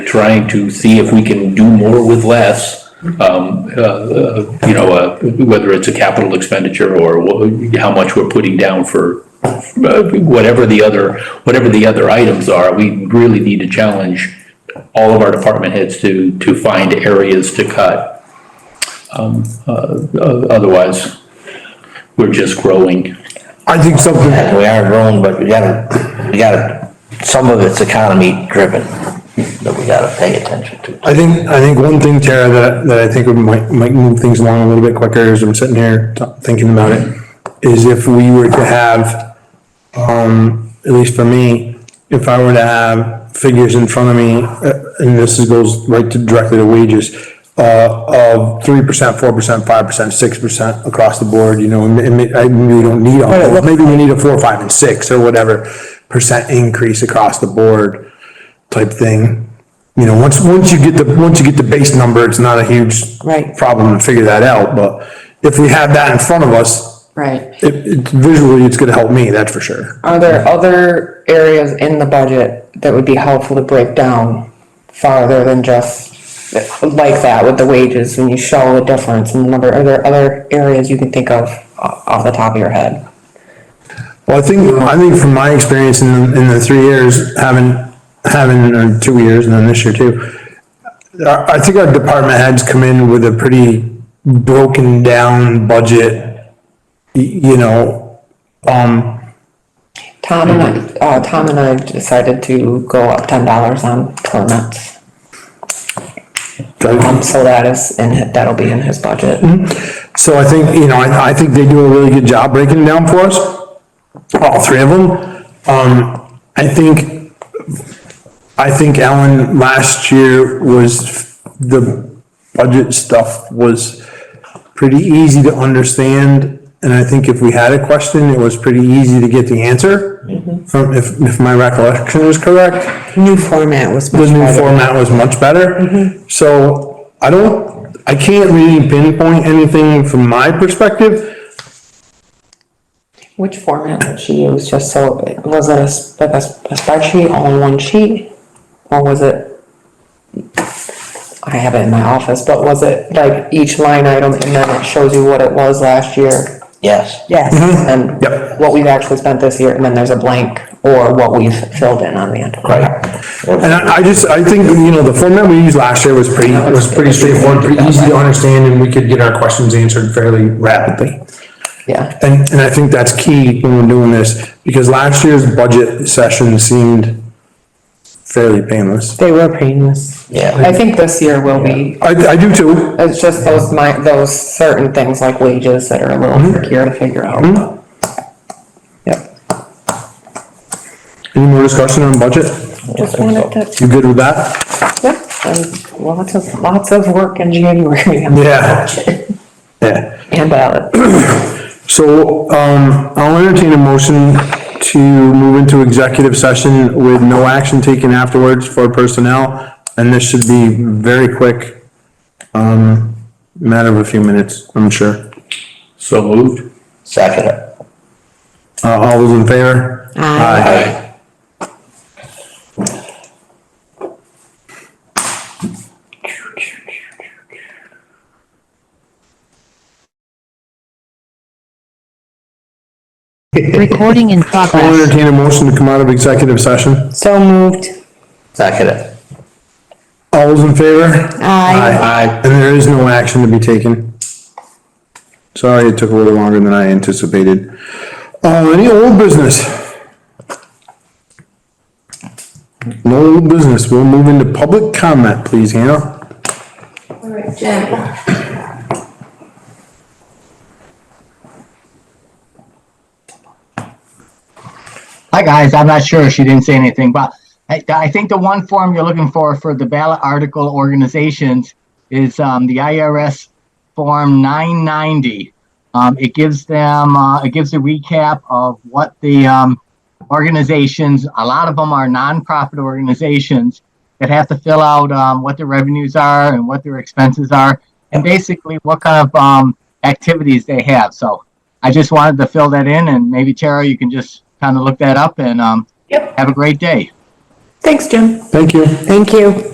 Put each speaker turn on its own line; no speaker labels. trying to see if we can do more with less. Um, uh, uh, you know, uh, whether it's a capital expenditure or wha- how much we're putting down for uh, whatever the other, whatever the other items are, we really need to challenge all of our department heads to, to find areas to cut. Um, uh, o- otherwise, we're just growing.
I think something,
And we are grown, but we gotta, we gotta, some of it's economy driven that we gotta pay attention to.
I think, I think one thing, Tara, that, that I think would might, might move things along a little bit quicker as I'm sitting here t- thinking about it, is if we were to have, um, at least for me, if I were to have figures in front of me, uh, and this is- goes right to directly to wages, uh, of three percent, four percent, five percent, six percent across the board, you know, and, and may- I, maybe we don't need, all- maybe we need a four, five, and six, or whatever percent increase across the board type thing. You know, once, once you get the, once you get the base number, it's not a huge.
Right.
Problem to figure that out, but if we have that in front of us,
Right.
it, it visually, it's gonna help me, that's for sure.
Are there other areas in the budget that would be helpful to break down farther than just like that with the wages when you show the difference in the number? Are there other areas you can think of o- off the top of your head?
Well, I think, I think from my experience in, the- in the three years, having, having, or two years, and then this year too, I, I think our department heads come in with a pretty broken down budget, y- you know, um,
Tom and I, uh, Tom and I decided to go up ten dollars on permits. Um, so that is, and that'll be in his budget.
So I think, you know, I, I think they do a really good job breaking it down for us, all three of them. Um, I think, I think Ellen last year was, the budget stuff was pretty easy to understand. And I think if we had a question, it was pretty easy to get the answer, from, if, if my recollection is correct.
New format was
The new format was much better. So I don't, I can't really pinpoint anything from my perspective.
Which format did she use, just so, was it a, s- like a s- a spreadsheet, all in one sheet? Or was it? I have it in my office, but was it like each line item and then it shows you what it was last year?
Yes.
Yes. And
Yep.
what we've actually spent this year, and then there's a blank, or what we've filled in on the end.
And I, I just, I think, you know, the format we used last year was pretty, was pretty straightforward, pretty easy to understand, and we could get our questions answered fairly rapidly.
Yeah,
And, and I think that's key when we're doing this, because last year's budget session seemed fairly painless.
they were painless.
Yeah.
I think this year will be,
I, I do too.
it's just those my, those certain things like wages that are a little trickier to figure out. Yep.
Any more discussion on budget?
Just wanted to
You good with that?
Yep, and lots of, lots of work in January
Yeah. Yeah.
and uh, ballot.
So, um, I'll entertain a motion to move into executive session with no action taken afterwards for personnel, and this should be very quick. Um, matter of a few minutes, I'm sure.
So moved.
Second it.
Uh, all those in favor? Aye.
Recording in
I'll
progress.
entertain a motion to come out of executive session.
So moved.
Second it.
All those in favor? Aye. And there is no action to be taken. Sorry, it took a little longer than I anticipated. Uh, any old business? No old business. We'll move into public comment, please, Hannah.
Hi, guys. I'm not sure. She didn't say anything, but I, I think the one form you're looking for for the ballot article organizations is um, the IRS form 990. Um, it gives them uh, it gives a recap of what the um, organizations. A lot of them are nonprofit organizations that have to fill out um, what their revenues are and what their expenses are, and basically what kind of um, activities they have. So I just wanted to fill that in, and maybe Tara, you can just kind of look that up and um, have a great day.
Thanks, Jim.
Thank you.
Thank you.